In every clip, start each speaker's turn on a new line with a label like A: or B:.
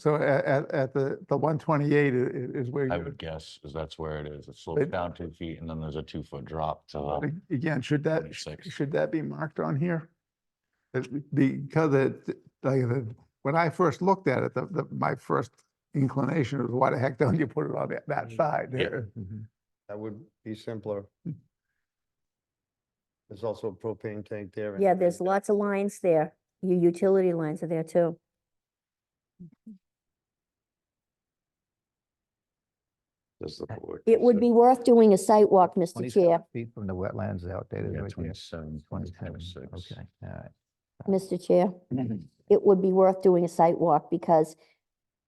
A: So at, at, at the, the one twenty-eight is, where
B: I
A: you,
B: would guess, is that's where it is. It slopes
A: It-
B: down two feet and then there's a two foot drop to the,
A: again, should that, sh-
B: 26.
A: should that be marked on here? It- Because it, like, the- when I first looked at it, the, the, my first inclination was, why the heck don't you put it on that, that
C: Mm.
A: side
B: Yeah.
A: there?
C: That would be simpler.
D: Hmm.
C: There's also a propane tank there. and
E: Yeah,
C: everything.
E: there's lots of lines there. Your utility lines are there too.
C: Does the board
E: It would
C: consider-
E: be worth doing a site walk, Mr.
D: 20
E: Chair.
D: Feet from the wetlands is outdated.
B: yeah,
D: right there.
B: twenty seven, twenty
D: 27,
B: six.
D: Okay, all right.
E: Mr. Chair, it would be worth doing a site walk because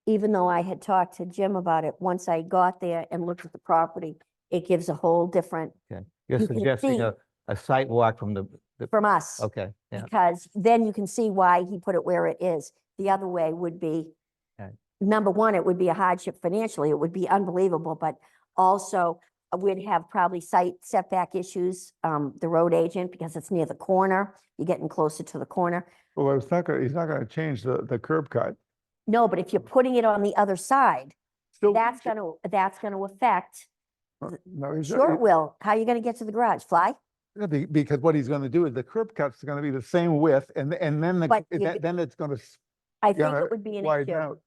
E: even though I had talked to Jim about it, once I got there and looked at the property, it gives a whole different
D: You're
E: You can see-
D: suggesting a, a site walk from the, the-
E: from us.
D: okay, yeah,
E: Because then you can see why he put it where it is. The other way would be,
D: Okay.
E: number one, it would be a hardship financially. It would be unbelievable, but also uh, we'd have probably site setback issues, um, the road agent, because it's near the corner. You're getting closer to the corner.
A: Well, it's not gonna, he's not gonna change the, the curb cut.
E: No, but if you're
A: Mm-hmm.
E: putting it on the other side,
A: Still-
E: that's gonna, that's gonna affect,
A: uh, No, he's,
E: sure it will. How are you gonna get to the garage? Fly?
A: Yeah, be- Because what he's gonna do is the curb cut's gonna be the same width and, th- and then, the
E: But
A: g-
E: you-
A: that- then it's gonna s-
E: I think
A: gotta
E: it would be an
A: widen
E: issue.
A: out.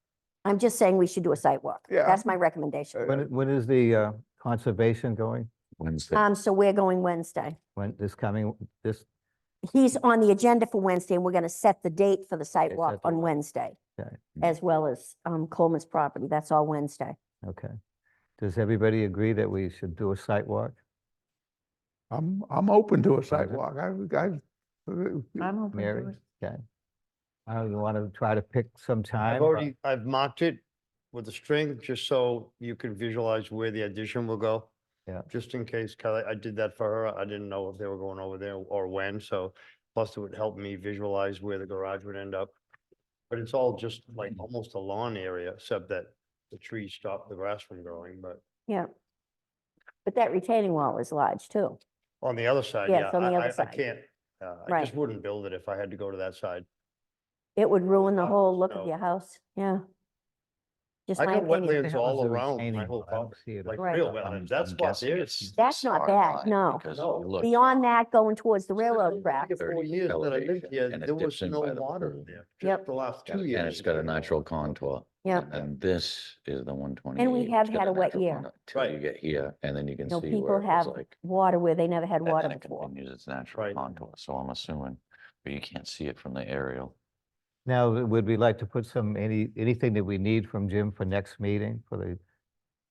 E: I'm just saying we should do a site walk.
A: Yeah.
E: That's my recommendation.
D: when, when is the uh, conservation going?
B: Wednesday.
E: Um, so we're going Wednesday.
D: When, this coming, this,
E: he's on the agenda for Wednesday, and we're gonna set the date for the site
D: Okay,
E: walk
D: set the
E: on
D: date.
E: Wednesday.
D: Okay.
E: As well as um Coleman's property, that's all Wednesday.
D: okay. Does everybody agree that we should do a site walk?
A: I'm, I'm open to a
D: Private.
A: sidewalk. I, I.
F: I'm open
D: Mary,
F: to it.
D: okay. I don't want to try to pick some time. uh
C: I've
D: but-
C: already, I've marked it with a string, just so you could visualize where the addition will go.
D: Yeah.
C: Just in case, Kelly, I did that for her. I didn't know if they were going over there or when, so plus it would help me visualize where the garage would end up. But it's all just like
D: Mm-hmm.
C: almost a lawn area, except that the trees stop the grass from growing, but
E: Yeah. But that retaining wall is large too.
C: on the other side,
E: Yeah,
C: yeah,
E: it's
C: I,
E: on the other
C: I, I
E: side.
C: can't. Uh, I
E: Right.
C: just wouldn't build it if I had to go to that side.
E: It would ruin the
C: Oh,
E: whole look of
C: no.
E: your house, yeah. Just
C: I
E: my
C: got
E: opinion.
C: wetlands
D: The hell
C: all
D: is a
C: around my
D: retaining
C: whole
D: wall? I don't
C: property,
D: see it.
C: Like
E: Right.
C: real
B: I'm-
C: wetlands,
B: I'm
C: that's what
B: guessing
C: there
B: it's
C: is.
E: That's not
B: side
E: bad,
B: line
E: no.
B: Because
C: No.
B: you look.
E: Beyond that, going towards the railroad track,
C: Three or Four
B: 30
C: years that I lived
B: elevation,
C: here,
B: and it
C: there was
B: dips in
C: no
B: by the
C: water
B: pool.
C: there.
E: Yep.
C: Just the last
B: And
C: two years.
B: it's got a
C: there's no
B: natural
C: water.
B: contour.
E: yeah,
B: And this is the one twenty eight.
E: have had a wet year.
B: Till you
C: Right.
B: get here and then you can
E: No,
B: see
E: people
B: where it was
E: have
B: like.
E: water where they never had
B: and
E: water
B: then it
E: before.
B: Continues its natural
C: Right.
B: contour, so I'm assuming, but you can't see it from the aerial.
D: Now, would we like to put some, any, anything that we need from Jim for next meeting for the?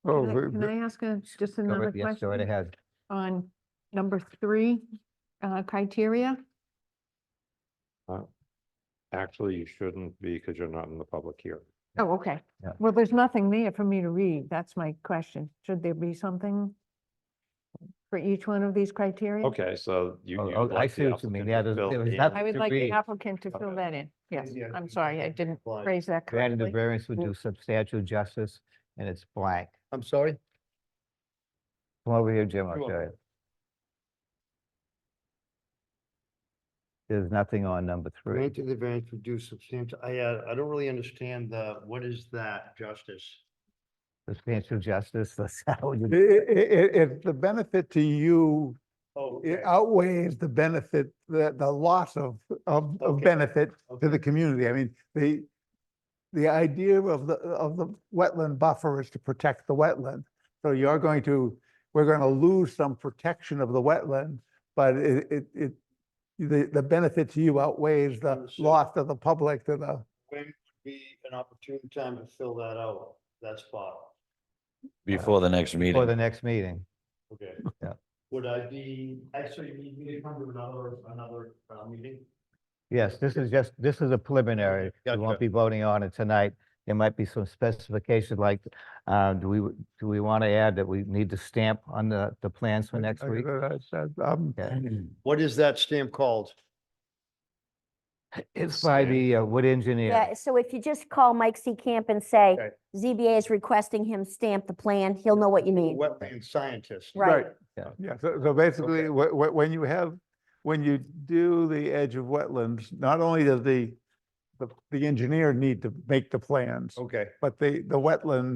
A: Oh,
F: Can I-
A: but-
F: Can
A: but-
F: I ask a, just
D: go
F: another
D: right- Yes, go right
F: question
D: ahead.
F: on number three, uh, criteria?
G: Actually, you shouldn't be because you're not in the public hearing.
F: Oh, okay.
D: Yeah.
F: Well, there's nothing there for me to read. That's my question. Should there be something for each one of these criteria?
G: Okay, so you.
D: Oh,
G: you'd
D: oh, I
G: like the
D: see what you mean.
G: applicant
D: Yeah,
G: to
D: there's-
G: fill
D: there was
G: in-
D: nothing-
F: I would
D: to
F: like the
D: read.
F: applicant to fill that in. Yes,
C: Yeah,
F: I'm sorry, I didn't
C: Like-
F: phrase that
D: Granted, the
F: correctly.
D: variance would
E: Mm.
D: do substantial justice and it's blank.
C: I'm sorry?
D: Come over here, Jim, I'll show
C: Sure.
D: you. There's nothing on number three.
C: Granted, the variance would do substantial, I, uh, I don't really understand the, what is that justice?
D: Substantial justice, that's how
A: i-
D: you,
A: i- i- If the benefit to you
C: Oh,
A: it
C: okay,
A: outweighs the benefit, the, the loss of, of, of
C: Okay.
A: benefit to the
C: okay.
A: community, I mean, the, the idea of the, of the wetland buffer is to protect the wetland. So you're going to, we're going to lose some protection of the wetland, but it, it, it, the, the benefit to you outweighs the
C: Understood.
A: loss to the public to the,
C: When would be an opportune time to fill that out, that spot?
B: Before the next meeting.
D: for the next meeting.
C: Okay.
D: Yeah.
C: Would I be, actually, you need me to come to another, another, uh, meeting?
D: Yes, this is just, this is a preliminary. We
C: gotcha.
D: won't be voting on it tonight. There might be some specification like, uh, do we, do we want to add that we need to stamp on the, the plans for next week?
A: um,
D: Yeah.
C: What is that stamp called?
D: It's by
B: Stamp.
D: the uh, wood engineer.
E: Yeah, so if you just call Mike C. Camp and say,
C: Okay.
E: ZBA is requesting him stamp the plan, he'll know what you mean.
C: Wetland scientist.
E: Right.
A: Yeah, so, so basically, wh- wh- when you have, when you do the edge of wetlands, not only does the, the, the engineer need to make the plans,
C: Okay.
A: but the, the wetland